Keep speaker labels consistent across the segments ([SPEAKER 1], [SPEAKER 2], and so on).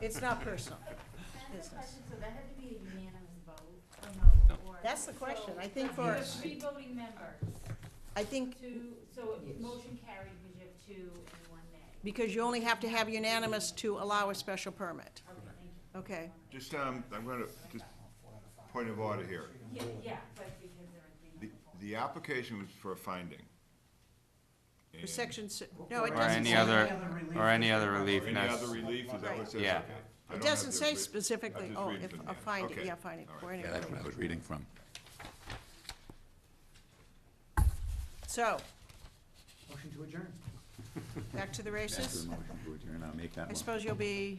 [SPEAKER 1] It's not personal.
[SPEAKER 2] That's the
[SPEAKER 1] Business.
[SPEAKER 2] question, so that had to be a unanimous vote, or no,
[SPEAKER 3] No.
[SPEAKER 2] or?
[SPEAKER 1] That's the question.
[SPEAKER 2] so
[SPEAKER 1] I think
[SPEAKER 2] you
[SPEAKER 1] for-
[SPEAKER 2] have three voting members,
[SPEAKER 1] I think
[SPEAKER 2] two, so if motion carried because you have two and one nay.
[SPEAKER 1] because you only have to have unanimous to allow a special permit.
[SPEAKER 2] Okay, thank you.
[SPEAKER 1] Okay.
[SPEAKER 4] Just, um, I'm gonna, just point of order here.
[SPEAKER 2] Yeah, yeah, but because there are
[SPEAKER 4] The,
[SPEAKER 2] three.
[SPEAKER 4] the application was for a finding.
[SPEAKER 1] For
[SPEAKER 4] And-
[SPEAKER 1] section si- no, it
[SPEAKER 5] Or
[SPEAKER 1] doesn't
[SPEAKER 5] any
[SPEAKER 1] say-
[SPEAKER 5] other- or any other
[SPEAKER 4] Or
[SPEAKER 5] relief
[SPEAKER 4] any other
[SPEAKER 5] necessary.
[SPEAKER 4] relief, is that what it says?
[SPEAKER 5] Yeah.
[SPEAKER 4] Okay. I
[SPEAKER 1] It
[SPEAKER 4] don't
[SPEAKER 1] doesn't
[SPEAKER 4] have to
[SPEAKER 1] say
[SPEAKER 4] read-
[SPEAKER 1] specifically,
[SPEAKER 4] just
[SPEAKER 1] oh,
[SPEAKER 4] reading
[SPEAKER 1] if,
[SPEAKER 4] from the
[SPEAKER 1] a
[SPEAKER 4] end.
[SPEAKER 1] finding,
[SPEAKER 4] Okay.
[SPEAKER 1] yeah, finding,
[SPEAKER 4] All
[SPEAKER 1] for
[SPEAKER 4] right.
[SPEAKER 1] any.
[SPEAKER 6] Yeah, that's what I was reading from.
[SPEAKER 1] So,
[SPEAKER 5] Motion to adjourn.
[SPEAKER 1] back to the
[SPEAKER 6] Ask for
[SPEAKER 1] races.
[SPEAKER 6] a motion to adjourn, I'll make that
[SPEAKER 1] I
[SPEAKER 6] one.
[SPEAKER 1] suppose you'll be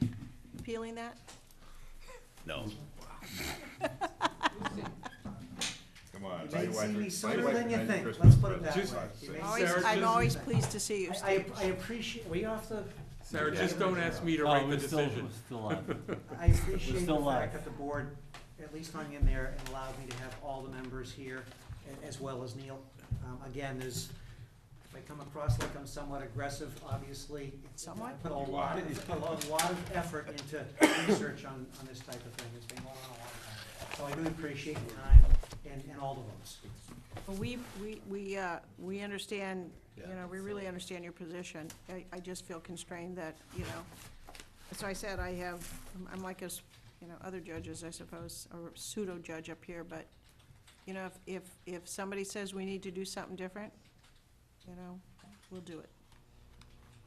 [SPEAKER 1] appealing that?
[SPEAKER 6] No.
[SPEAKER 4] Come on.
[SPEAKER 5] You
[SPEAKER 4] my
[SPEAKER 5] may
[SPEAKER 4] wife-
[SPEAKER 5] see me
[SPEAKER 4] my
[SPEAKER 5] sooner
[SPEAKER 4] wife
[SPEAKER 5] than you
[SPEAKER 4] made
[SPEAKER 5] think,
[SPEAKER 4] Christmas
[SPEAKER 5] let's put it that
[SPEAKER 4] presents.
[SPEAKER 5] way.
[SPEAKER 4] Just-
[SPEAKER 5] You may
[SPEAKER 1] Always,
[SPEAKER 5] see me
[SPEAKER 7] Sarah,
[SPEAKER 1] I'm
[SPEAKER 5] sooner
[SPEAKER 1] always
[SPEAKER 5] than you
[SPEAKER 1] pleased to see you,
[SPEAKER 5] think. I,
[SPEAKER 1] Steve.
[SPEAKER 5] I- I appreciate, we off the,
[SPEAKER 7] Sarah,
[SPEAKER 6] Yeah.
[SPEAKER 7] just don't ask me to
[SPEAKER 8] No,
[SPEAKER 7] write the
[SPEAKER 8] we're Oh, still-
[SPEAKER 7] decision.
[SPEAKER 8] We're still on.
[SPEAKER 5] I appreciate the
[SPEAKER 8] still live.
[SPEAKER 5] fact that the board at least hung in there and allowed me to have all the members here, a- as well as Neil. Um, again, there's, if I come across like I'm somewhat aggressive, obviously, it's- I
[SPEAKER 1] Somewhat?
[SPEAKER 5] put a lot, of- a lot, a lot of effort into research on, on this type of thing, it's been going on a long time. So I do appreciate your time and, and all the votes.
[SPEAKER 1] Well, we, we, we, uh, we understand, you know, we really understand your position. I, I just feel constrained that, you know, so I said I have, I'm- I'm like us, you know, other judges, I suppose, or pseudo judge up here, but, you know, if, if, if somebody says we need to do something different, you know, we'll do it.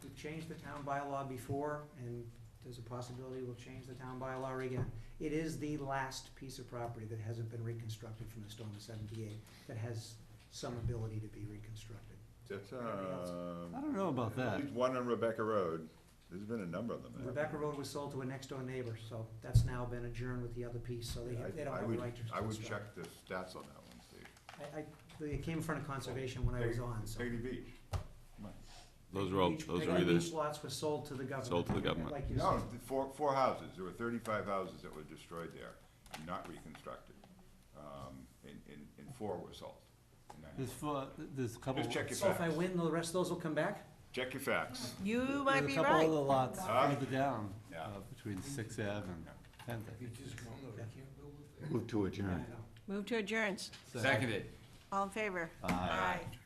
[SPEAKER 5] We've changed the town bylaw before, and there's a possibility we'll change the town bylaw again. It is the last piece of property that hasn't been reconstructed from the storm of seventy-eight, that has some ability to be reconstructed.
[SPEAKER 4] That's,
[SPEAKER 8] I
[SPEAKER 4] um,
[SPEAKER 8] don't know about
[SPEAKER 4] at
[SPEAKER 8] that.
[SPEAKER 4] least uh, one on Rebecca Road. There's been a number of them. haven't there?
[SPEAKER 5] Rebecca Road was sold to a next-door neighbor, so that's now been adjourned with the other piece, so they,
[SPEAKER 4] I-
[SPEAKER 5] they don't
[SPEAKER 4] I
[SPEAKER 5] have a
[SPEAKER 4] would-
[SPEAKER 5] right to.
[SPEAKER 4] I would
[SPEAKER 5] construct.
[SPEAKER 4] check the stats on that one, Steve.
[SPEAKER 5] I, I, they came in front of conservation when I was on, so.
[SPEAKER 4] Peggy Beach. Come on.
[SPEAKER 6] Those are all,
[SPEAKER 5] Each-
[SPEAKER 6] those
[SPEAKER 5] the
[SPEAKER 6] are either,
[SPEAKER 5] Beach lots were sold to the government.
[SPEAKER 6] Sold to the government.
[SPEAKER 5] Like you said.
[SPEAKER 4] No, the four, four houses, there were thirty-five houses that were destroyed there, and not reconstructed, um, and, and, and four were sold. And I-
[SPEAKER 8] There's four, there's a couple.
[SPEAKER 4] Just check your
[SPEAKER 5] So if I
[SPEAKER 4] facts,
[SPEAKER 5] win, the rest of those will come back?
[SPEAKER 4] check your facts.
[SPEAKER 1] You
[SPEAKER 8] There's
[SPEAKER 1] might
[SPEAKER 8] a
[SPEAKER 1] be
[SPEAKER 8] couple
[SPEAKER 1] right.
[SPEAKER 8] other lots
[SPEAKER 4] Huh?
[SPEAKER 8] further down,
[SPEAKER 4] Yeah.
[SPEAKER 8] uh, between Sixth Ave and Tenth. I think.
[SPEAKER 6] move to adjourn.
[SPEAKER 1] Move to adjourns.
[SPEAKER 8] So-
[SPEAKER 3] Seconded.
[SPEAKER 1] All in favor?
[SPEAKER 8] Aye.
[SPEAKER 1] Aye.